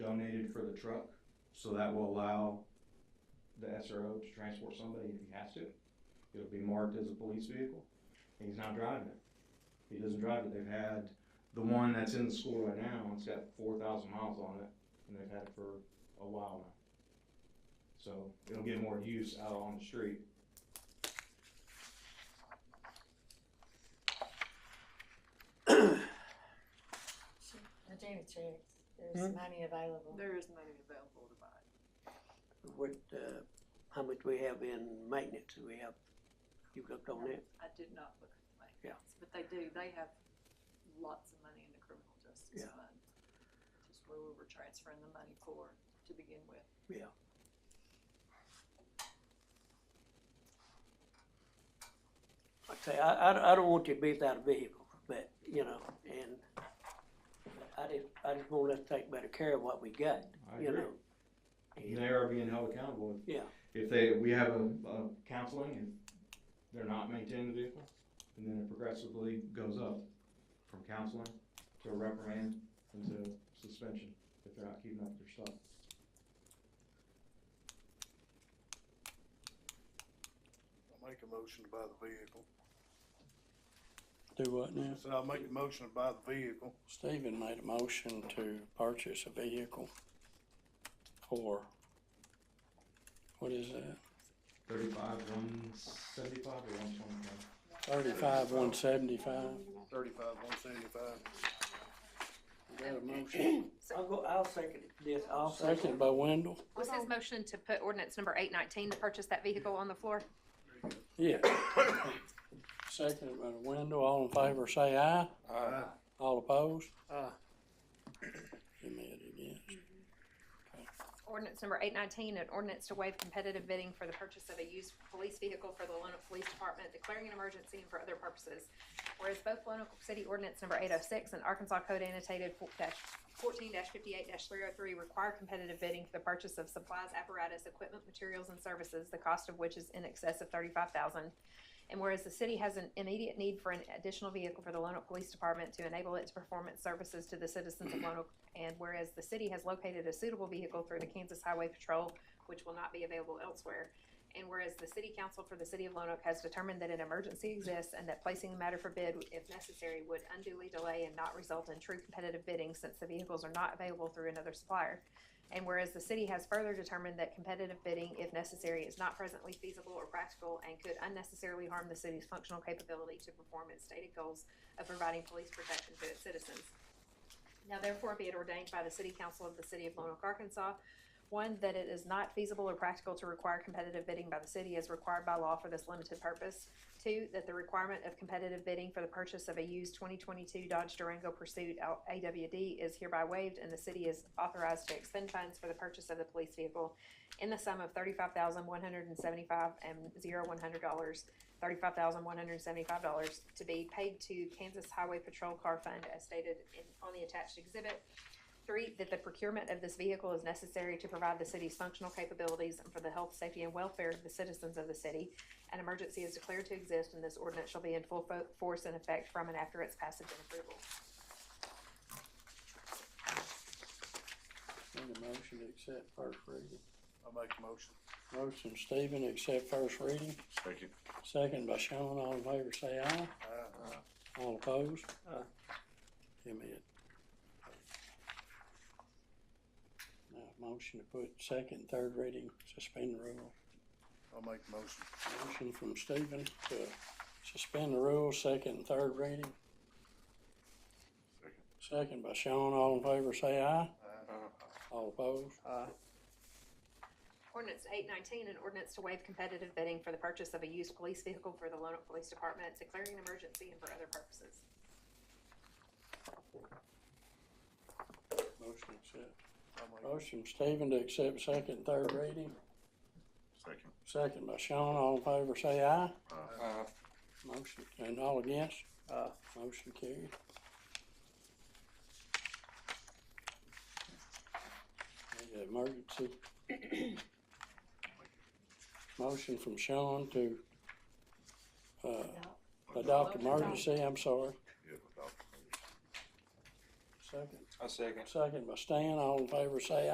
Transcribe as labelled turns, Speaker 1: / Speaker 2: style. Speaker 1: for the truck, so that will allow the SRO to transport somebody if he has to. It'll be marked as a police vehicle, and he's not driving it. He doesn't drive it. They've had the one that's in the school right now, it's got four thousand miles on it, and they've had it for a while now. So it'll get more use out on the street.
Speaker 2: I think it's right. There's money available.
Speaker 3: There is money available to buy.
Speaker 4: What, uh, how much we have in maintenance, we have, you looked on that?
Speaker 3: I did not look at the
Speaker 4: Yeah.
Speaker 3: maintenance, but they do, they have lots of money in the criminal justice
Speaker 4: Yeah.
Speaker 3: fund. Which is where we were transferring the money for to begin with.
Speaker 4: Yeah. Like I say, I, I, I don't want you to be without a vehicle, but, you know, and I just, I just want us to take better care of what we got,
Speaker 1: I
Speaker 4: you
Speaker 1: agree.
Speaker 4: know?
Speaker 1: And They are being held accountable. If-
Speaker 4: Yeah.
Speaker 1: If they, we have a, a counseling, if they're not maintaining the vehicle, and then it progressively goes up from counseling to a reprimand and to suspension if they're not keeping up with their stuff.
Speaker 5: I'll make a motion to buy the vehicle.
Speaker 6: Do what now?
Speaker 5: So I'll make a motion to buy the vehicle.
Speaker 6: Stephen made a motion to purchase a vehicle for, what is that?
Speaker 1: Thirty-five, one seventy-five or one twenty-five?
Speaker 6: Thirty-five, one seventy-five.
Speaker 5: Thirty-five, one seventy-five.
Speaker 6: Got a motion.
Speaker 4: I'll go, I'll second this, I'll
Speaker 6: Seconded
Speaker 4: second.
Speaker 6: by Wendell.
Speaker 7: Was his motion to put ordinance number eight nineteen to purchase that vehicle on the floor?
Speaker 6: Yeah. Seconded by Wendell. All in favor, say aye.
Speaker 5: Aye.
Speaker 6: All opposed?
Speaker 4: Aye.
Speaker 6: You made it against.
Speaker 7: Ordinance number eight nineteen, an ordinance to waive competitive bidding for the purchase of a used police vehicle for the Lonoc Police Department, declaring an emergency and for other purposes. Whereas both Lonoc City Ordinance number eight oh six and Arkansas Code annotated fourteen fifty-eight three oh three require competitive bidding for the purchase of supplies, apparatus, equipment, materials, and services, the cost of which is in excess of thirty-five thousand. And whereas the city has an immediate need for an additional vehicle for the Lonoc Police Department to enable its performance services to the citizens of Lonoc and whereas the city has located a suitable vehicle through the Kansas Highway Patrol, which will not be available elsewhere. And whereas the city council for the city of Lonoc has determined that an emergency exists and that placing the matter for bid, if necessary, would unduly delay and not result in true competitive bidding since the vehicles are not available through another supplier. And whereas the city has further determined that competitive bidding, if necessary, is not presently feasible or practical and could unnecessarily harm the city's functional capability to perform its stated goals of providing police protection to its citizens. Now therefore be it ordained by the City Council of the City of Lonoc, Arkansas, one, that it is not feasible or practical to require competitive bidding by the city as required by law for this limited purpose. Two, that the requirement of competitive bidding for the purchase of a used twenty twenty-two Dodge Durango Pursuit L- AWD is hereby waived and the city is authorized to expend funds for the purchase of the police vehicle in the sum of thirty-five thousand one hundred and seventy-five and zero one hundred dollars, thirty-five thousand one hundred and seventy-five dollars to be paid to Kansas Highway Patrol Car Fund as stated in, on the attached exhibit. Three, that the procurement of this vehicle is necessary to provide the city's functional capabilities and for the health, safety, and welfare of the citizens of the city. An emergency is declared to exist and this ordinance shall be in full fo- force and effect from and after its passage and approval.
Speaker 6: Made a motion to accept first reading.
Speaker 5: I'll make a motion.
Speaker 6: Motion Stephen, accept first reading.
Speaker 8: Second.
Speaker 6: Second by Sean. All in favor, say
Speaker 5: Aye.
Speaker 6: aye. All opposed?
Speaker 4: Aye.
Speaker 6: You may it. Now, motion to put second, third reading, suspend the rule.
Speaker 5: I'll make a motion.
Speaker 6: Motion from Stephen to suspend the rule, second and third reading.
Speaker 8: Second.
Speaker 6: Second by Sean, all in favor say aye,
Speaker 5: Aye.
Speaker 6: all opposed.
Speaker 7: Ordinance eight nineteen, an ordinance to waive competitive bidding for the purchase of a used police vehicle for the Lonoc Police Department, declaring an emergency and for other purposes.
Speaker 6: Motion accept.
Speaker 5: I'll make-
Speaker 6: Motion from Stephen to accept second and third reading,
Speaker 8: Second.
Speaker 6: second by Sean, all in favor say aye.
Speaker 8: Aye.
Speaker 6: Motion, and all against? Uh,
Speaker 4: Aye.
Speaker 6: Motion carried. There's an Emergency. Motion from Sean to, uh, adopt emergency, I'm sorry.
Speaker 8: Yeah, adopt.
Speaker 6: Second,
Speaker 8: I second.
Speaker 6: second by Stan, all in favor say